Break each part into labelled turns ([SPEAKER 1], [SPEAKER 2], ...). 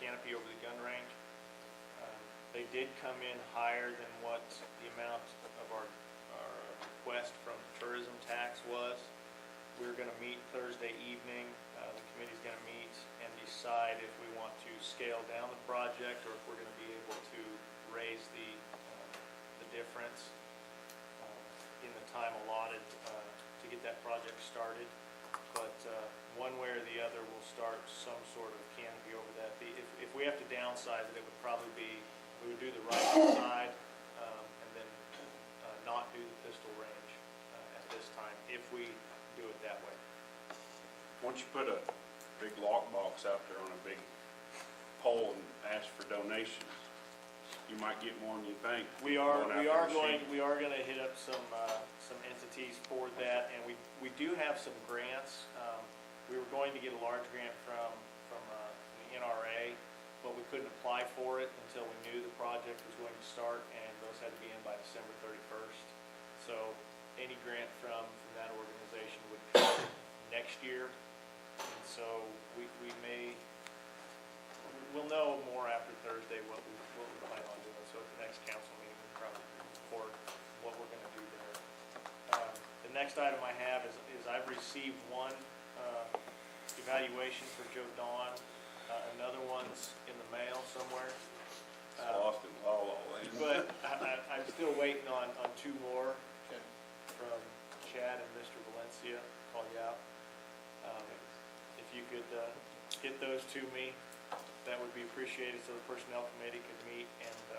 [SPEAKER 1] canopy over the gun range. Um, They did come in higher than what the amount of our, our request from tourism tax was. We're gonna meet Thursday evening, uh, the committee's gonna meet and decide if we want to scale down the project or if we're gonna be able to raise the, uh, the difference uh, in the time allotted uh, to get that project started. But uh, one way or the other, we'll start some sort of canopy over that. The- If, if we have to downsize it, it would probably be, we would do the right side um, and then uh, not do the pistol range uh, at this time, if we do it that way.
[SPEAKER 2] Once you put a big lockbox out there on a big pole and ask for donations, you might get more than you think.
[SPEAKER 1] We are,
[SPEAKER 2] Going out
[SPEAKER 1] we
[SPEAKER 2] there
[SPEAKER 1] are
[SPEAKER 2] and
[SPEAKER 1] going,
[SPEAKER 2] shooting.
[SPEAKER 1] we are gonna hit up some, uh, some entities for that, and we, we do have some grants. Um, We were going to get a large grant from, from, uh, the NRA, but we couldn't apply for it until we knew the project was going to start, and those had to be in by December thirty-first. So any grant from, from that organization would come next year, and so we, we may, We'll know more after Thursday what we, what we plan on doing, so at the next council meeting, we'll probably report what we're gonna do there. Um, The next item I have is, is I've received one uh, evaluation for Joe Don, Uh, another one's in the mail somewhere.
[SPEAKER 2] It's
[SPEAKER 1] uh,
[SPEAKER 2] lost in La La Land.
[SPEAKER 1] But I, I, I'm still waiting on, on two more
[SPEAKER 3] Okay.
[SPEAKER 1] from Chad and Mr. Valencia, call you out. Um, If you could uh, get those to me, that would be appreciated, so the personnel committee could meet and uh,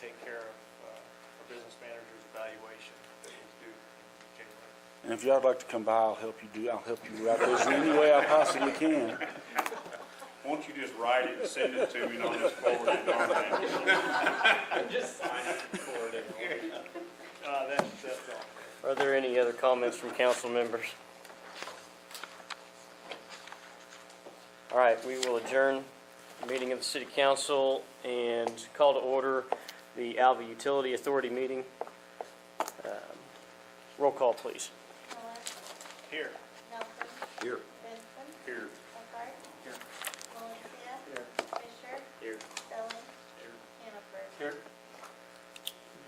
[SPEAKER 1] take care of uh, our business manager's evaluation that was due in January.
[SPEAKER 4] And if y'all would like to come by, I'll help you do, I'll help you write those in any way I possibly can.
[SPEAKER 2] Won't you just write it and send it to me and I'll just forward it on that?
[SPEAKER 5] Just sign it and forward it.
[SPEAKER 1] Uh, That's, that's all.
[SPEAKER 5] Are there any other comments from council members? All right, we will adjourn the meeting of the city council and call to order the Alva Utility Authority meeting. Um, Roll call, please.
[SPEAKER 6] Miller,
[SPEAKER 1] Here,
[SPEAKER 6] Nelson,
[SPEAKER 2] Here.
[SPEAKER 6] Benson,
[SPEAKER 2] Here.
[SPEAKER 6] Eckhart.
[SPEAKER 1] Here.
[SPEAKER 6] Valencia.
[SPEAKER 1] Here.
[SPEAKER 6] Fisher,
[SPEAKER 5] Here.
[SPEAKER 6] Stelling.
[SPEAKER 1] Here.
[SPEAKER 6] Hannaford.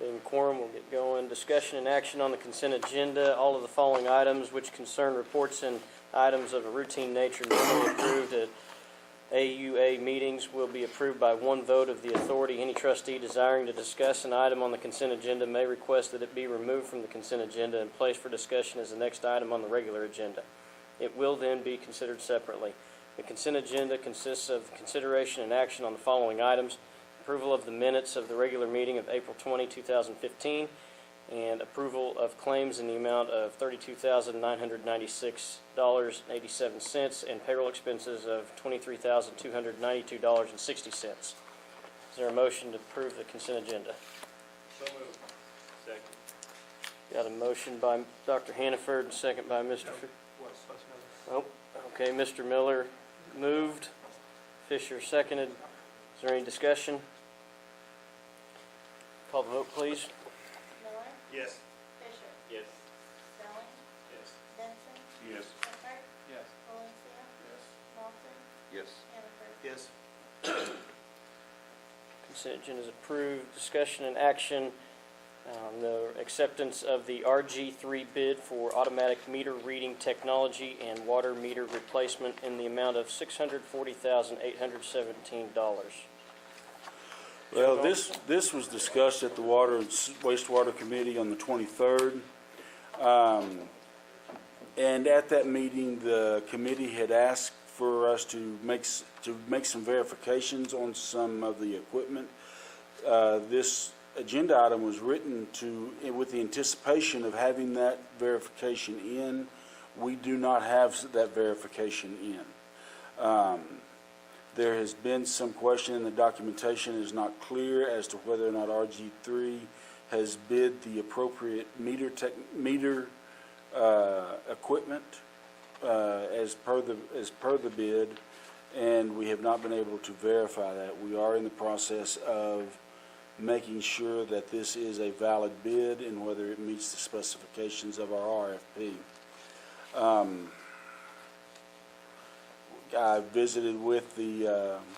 [SPEAKER 5] Being quorum, we'll get going. Discussion and action on the consent agenda. All of the following items which concern reports and items of a routine nature normally approved at AUA meetings will be approved by one vote of the authority. Any trustee desiring to discuss an item on the consent agenda may request that it be removed from the consent agenda and placed for discussion as the next item on the regular agenda. It will then be considered separately. The consent agenda consists of consideration and action on the following items: approval of the minutes of the regular meeting of April 20, 2015, and approval of claims in the amount of $32,996.87 and payroll expenses of $23,292.60. Is there a motion to approve the consent agenda?
[SPEAKER 1] so moved. Second.
[SPEAKER 5] Got a motion by Dr. Hannaford, second by Mr. Fi-
[SPEAKER 1] What's, what's another?
[SPEAKER 5] Oh, okay, Mr. Miller moved, Fisher seconded. Is there any discussion? Call the vote, please.
[SPEAKER 6] Miller,
[SPEAKER 1] Yes.
[SPEAKER 6] Fisher,
[SPEAKER 5] Yes.
[SPEAKER 6] Stelling,
[SPEAKER 1] Yes.
[SPEAKER 6] Benson,
[SPEAKER 2] Yes.
[SPEAKER 6] Eckhart,
[SPEAKER 1] Yes.
[SPEAKER 6] Valencia,
[SPEAKER 3] Yes.
[SPEAKER 6] Nelson,
[SPEAKER 2] Yes.
[SPEAKER 6] Hannaford.
[SPEAKER 1] Yes.
[SPEAKER 5] Consent agenda is approved. Discussion and action on the acceptance of the RG3 bid for automatic meter reading technology and water meter replacement in the amount of $640,817.
[SPEAKER 4] Well, this, this was discussed at the Water and S- Wastewater Committee on the 23rd. Um, And at that meeting, the committee had asked for us to make, s- to make some verifications on some of the equipment. Uh, This agenda item was written to, eh, with the anticipation of having that verification in. We do not have that verification in. There has been some question, and the documentation is not clear as to whether or not RG3 has bid the appropriate meter tech, meter, uh, equipment, uh, as per the, as per the bid, and we have not been able to verify that. We are in the process of making sure that this is a valid bid and whether it meets the specifications of our RFP. I visited with the uh,